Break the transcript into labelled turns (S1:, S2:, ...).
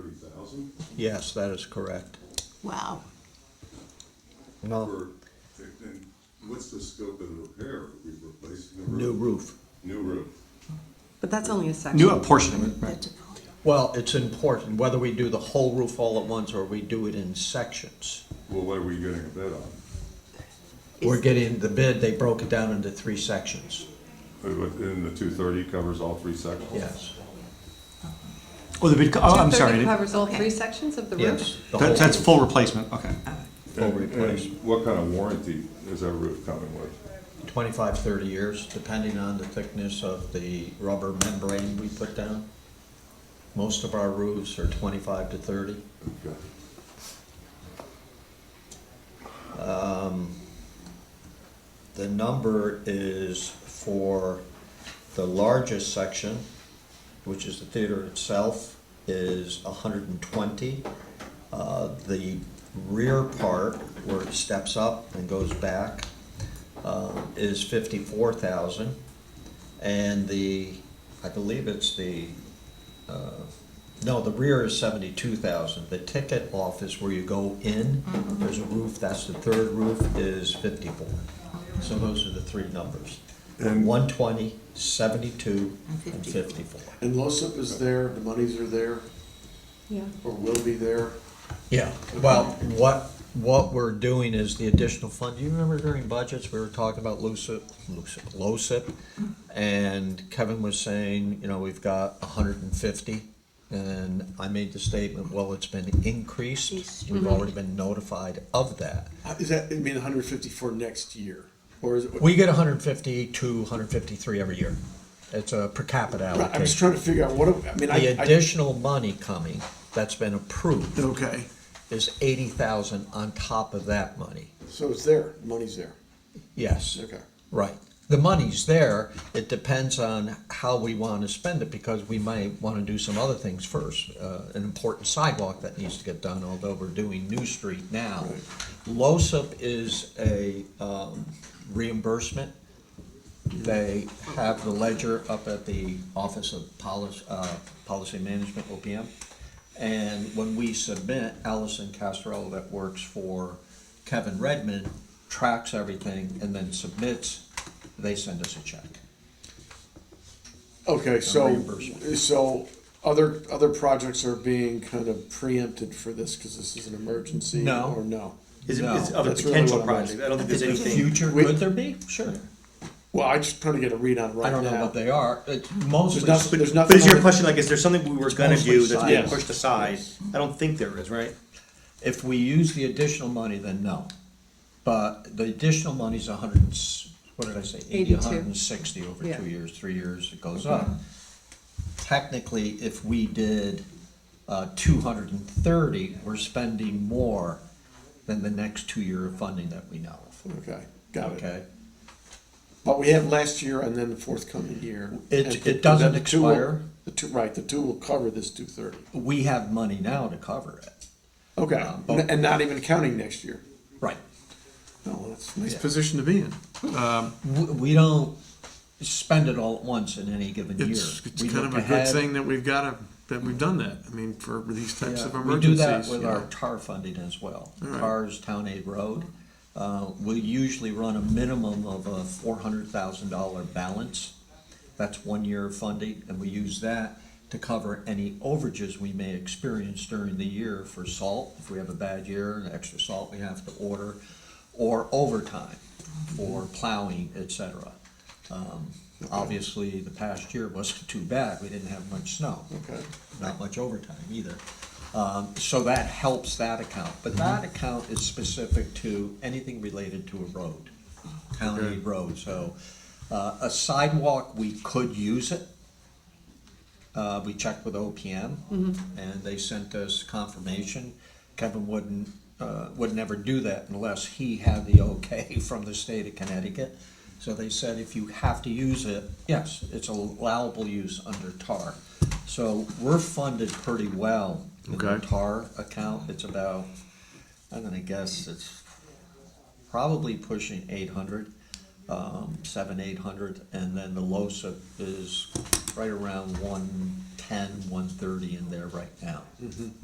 S1: thousand
S2: Yes, that is correct.
S3: Wow.
S2: No,
S1: for, and what's the scope of the repair? Are we replacing the
S2: new
S1: roof?
S2: roof.
S1: New roof.
S4: But that's only a section.
S5: New apportionment, right?
S3: That's a-
S2: Well, it's important, whether we do the whole roof all at once or we do it in sections.
S1: Well, what are we getting a bid on?
S2: We're getting the bid, they broke it down into three sections,
S1: And the two thirty covers all three sections?
S2: yes,
S5: Oh, the bid, co- oh, I'm sorry.
S4: Two thirty
S5: That-
S4: covers all
S3: Okay.
S4: three sections of the roof?
S2: yes. the whole
S5: That's
S2: roof,
S5: full replacement, okay.
S2: Full
S1: And- and
S2: replacement,
S1: What kind of warranty is that roof coming with?
S2: twenty-five, thirty years, depending on the thickness of the rubber membrane we put down. Most of our roofs are twenty-five to thirty.
S1: Okay.
S2: The number is for the largest section, which is the theater itself, is hundred and twenty. Uh, the rear part, where it steps up and goes back, uh, is fifty-four thousand. And the, I believe it's the, uh, no, the rear is seventy-two thousand. The ticket office where you go in, there's a roof, that's the third roof, is fifty-four. So those are the three numbers.
S1: And-
S2: 120, 72, and
S3: And
S2: 54.
S6: And LOSIP is there, the monies are there,
S4: Yeah.
S6: or will be there.
S2: Yeah, well, what, what we're doing is the additional fund, do you remember during budgets, we were talking about LUCIP, LUCIP, LOCIP? And Kevin was saying, you know, we've got hundred and fifty, and I made the statement, well, it's been increased. We've already been notified of that.
S6: Uh, Is that, I mean, hundred fifty for next year, or is it?
S2: We get hundred and fifty to hundred and fifty-three every year. It's a per capita
S6: Right, I'm just
S2: allocation.
S6: trying to figure out what, do- I mean, I.
S2: The
S6: I-
S2: additional money coming, that's been approved,
S6: Okay,
S2: is eighty thousand on top of that money.
S6: so it's there, money's there,
S2: Yes.
S6: okay.
S2: Right. The money's there, it depends on how we want to spend it, because we might want to do some other things first. Uh, An important sidewalk that needs to get done, although we're doing New Street now. LOSUP is a um, reimbursement. They have the ledger up at the Office of Policy, uh, Policy Management, OPM. And when we submit, Allison Castrell that works for Kevin Redmond tracks everything and then submits, they send us a check.
S6: Okay, so,
S2: reimbursement.
S6: so other, other projects are being kind of preempted for this, cause this is an emergency?
S2: No.
S6: Or no?
S5: Is it,
S2: No,
S5: is other
S6: that's really
S5: potential
S6: what I'm asking.
S5: projects? I don't think there's anything.
S2: Future,
S6: We-
S2: could there be? Sure.
S6: Well, I just trying to get a read on right now.
S2: I don't know what they are. It's mostly,
S6: There's nothing, there's nothing.
S5: But is
S6: on
S5: your
S6: it.
S5: question like, is there something we were gonna
S2: mostly
S5: do that's being
S6: size.
S5: pushed aside? I don't think there is, right?
S2: if we use the additional money, then no. But the additional money's a hundred and, s- what did I say? Eighty, a hundred and sixty over
S4: Yeah.
S2: two years, three years, it goes up. Technically, if we did, uh, two hundred and thirty, we're spending more than the next two-year of funding that we know of.
S6: Okay, got it.
S2: Okay?
S6: But we have last year and then the forthcoming year.
S2: It-
S6: And
S2: it
S6: the-
S2: doesn't
S6: the two will-
S2: expire.
S6: The two, right, the two will cover this two thirty.
S2: We have money now to cover it.
S6: Okay,
S2: Um, but-
S6: N- and not even counting next year.
S2: Right.
S6: No, that's nice.
S5: Position to be in.
S2: We, we don't spend it all at once in any given year.
S7: It's, it's
S2: We
S7: kind of
S2: look
S7: a good
S2: ahead.
S7: thing that we've got to, that we've done that, I mean, for these types of
S2: Yeah,
S7: emergencies.
S2: We do that with
S7: you
S2: our
S7: know.
S2: tar funding as well.
S7: All right.
S2: TAR's Town Aid Road. Uh, We usually run a minimum of a four hundred thousand dollar balance. That's one year of funding, and we use that to cover any overages we may experience during the year for salt. If we have a bad year, and extra salt we have to order, or overtime for plowing, et cetera. Um, Obviously, the past year wasn't too bad. We didn't have much snow
S6: Okay.
S2: not much overtime either. Um, so that helps that account, but that account is specific to anything related to a road, county road, so. Uh, a sidewalk, we could use it. Uh, we checked with OPM and they sent us confirmation. Kevin wouldn't, uh, would never do that unless he had the okay from the state of Connecticut. So they said if you have to use it, yes, it's allowable use under TAR. So we're funded pretty well in the
S7: Okay.
S2: TAR account. It's about, I'm gonna guess it's probably pushing eight hundred, um, seven, eight hundred, and then the LOSA is right around one ten, one thirty in there right now.